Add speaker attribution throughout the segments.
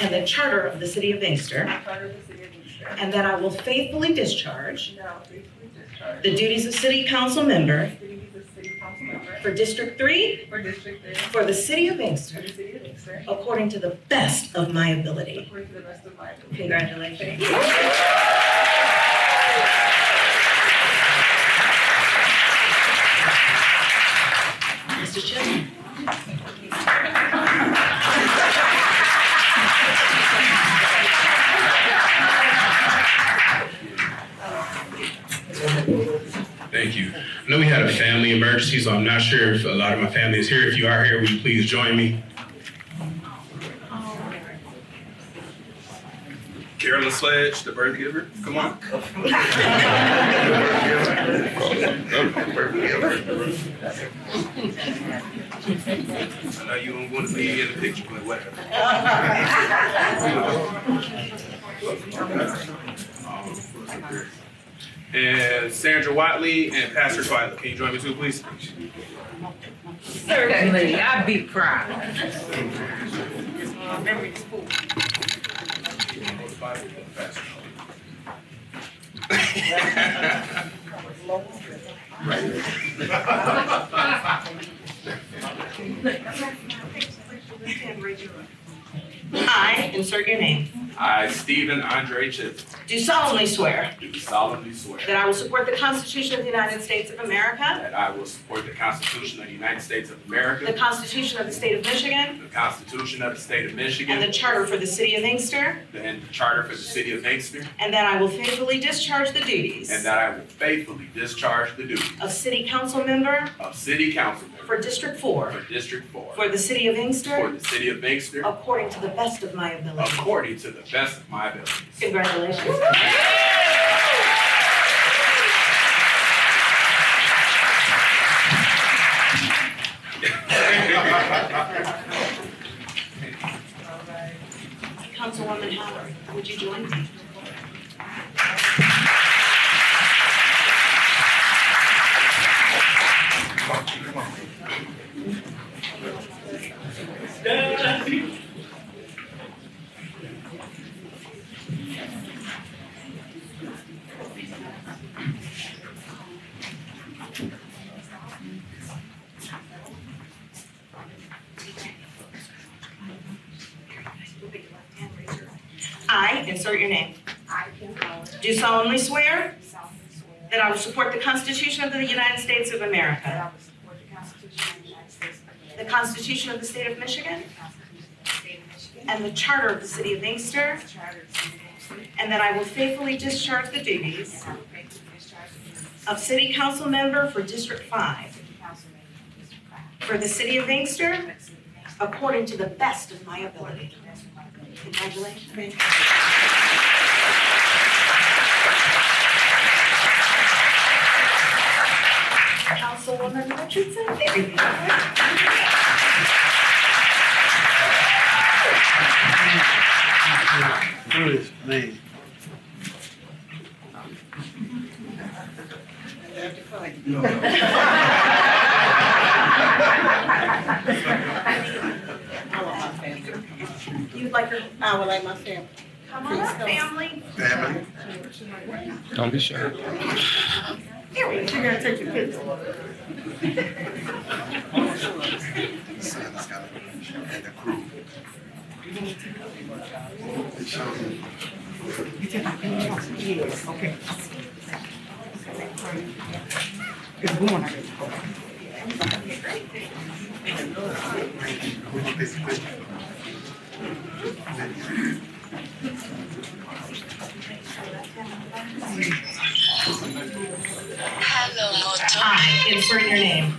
Speaker 1: and the Charter of the City of Inkster,
Speaker 2: Charter of the City of Easter.
Speaker 1: and that I will faithfully discharge
Speaker 2: Now faithfully discharge
Speaker 1: the duties of City Council Member
Speaker 2: the duties of City Council Member
Speaker 1: for District 3
Speaker 2: for District Three
Speaker 1: for the City of
Speaker 2: for
Speaker 1: Inkster
Speaker 2: the City of Easter
Speaker 1: according to the best of my ability.
Speaker 2: according to the best of my ability.
Speaker 1: Congratulations. Mr. Chisholm.
Speaker 3: Thank you. I know we had a family emergency, so I'm not sure if a lot of my family is here. If you are here, will you please join me?
Speaker 4: Carolyn Sledge, the birth giver. Come on. I know you don't want to be in the picture, but whatever. And Sandra Watley and Pastor Twyla. Can you join me too, please?
Speaker 5: Certainly, I'd be proud.
Speaker 1: I, insert your name,
Speaker 4: I, Stephen Andre Chip,
Speaker 1: do solemnly swear
Speaker 4: do solemnly swear.
Speaker 1: that I will support the Constitution of the United States of America,
Speaker 4: That I will support the Constitution of the United States of
Speaker 1: the
Speaker 4: America,
Speaker 1: Constitution of the State of Michigan,
Speaker 4: the Constitution of the State of
Speaker 1: and the
Speaker 4: Michigan,
Speaker 1: Charter for the City of Inkster,
Speaker 4: and the Charter for the City of Inkster,
Speaker 1: and that I will faithfully discharge the duties
Speaker 4: and that I will faithfully discharge the duties
Speaker 1: of City Council Member
Speaker 4: of City Council Member
Speaker 1: for District 4
Speaker 4: for District Four
Speaker 1: for the City of
Speaker 4: for
Speaker 1: Inkster
Speaker 4: the City of Inkster
Speaker 1: according to the best of my ability.
Speaker 4: according to the best of my abilities.
Speaker 1: Congratulations. Councilwoman Howard, would you join me? I, insert your name,
Speaker 6: I, Kim Howard,
Speaker 1: do solemnly swear
Speaker 6: solemnly swear
Speaker 1: that I will support the Constitution of the United States of
Speaker 6: that
Speaker 1: America,
Speaker 6: I will support the Constitution of the United States
Speaker 1: the
Speaker 6: of America,
Speaker 1: Constitution of the State of Michigan,
Speaker 6: the Constitution of the State of Michigan,
Speaker 1: and the Charter of the City of Inkster,
Speaker 6: and the Charter of the City of Inkster,
Speaker 1: and that I will faithfully discharge the duties
Speaker 6: and I will faithfully discharge the duties
Speaker 1: of City Council Member for District
Speaker 6: of
Speaker 1: Five
Speaker 6: City Council Member for District Five,
Speaker 1: for the City of Inkster
Speaker 6: for the City of Inkster,
Speaker 1: according to the best of my
Speaker 6: according
Speaker 1: ability.
Speaker 6: to the best of my ability.
Speaker 1: Congratulations. Councilwoman Richardson, there you are.
Speaker 7: Bruce, me.
Speaker 1: You'd like your, I would like my family. Come on up, family.
Speaker 3: Family.
Speaker 8: Don't be shy.
Speaker 1: Here we go.
Speaker 3: And the crew.
Speaker 1: I, insert your name,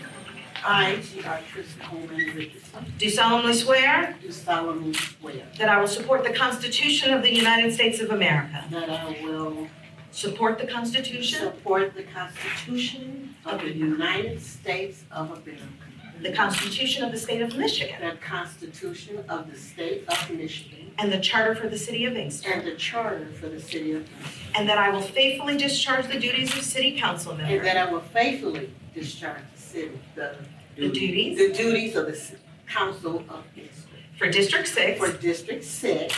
Speaker 9: I, G.R. Chris Coleman Richardson,
Speaker 1: do solemnly swear
Speaker 9: do solemnly swear
Speaker 1: that I will support the Constitution of the United States of America,
Speaker 9: that I will
Speaker 1: support the Constitution,
Speaker 9: support the Constitution of the United States of America,
Speaker 1: the Constitution of the State of Michigan,
Speaker 9: the Constitution of the State of Michigan,
Speaker 1: and the Charter for the City of Inkster,
Speaker 9: and the Charter for the City of Inkster,
Speaker 1: and that I will faithfully discharge the duties of City Council
Speaker 9: and
Speaker 1: Member,
Speaker 9: that I will faithfully discharge the city, the
Speaker 1: the duties
Speaker 9: the duties of the Ci- Council of Inkster
Speaker 1: for District Six
Speaker 9: for District Six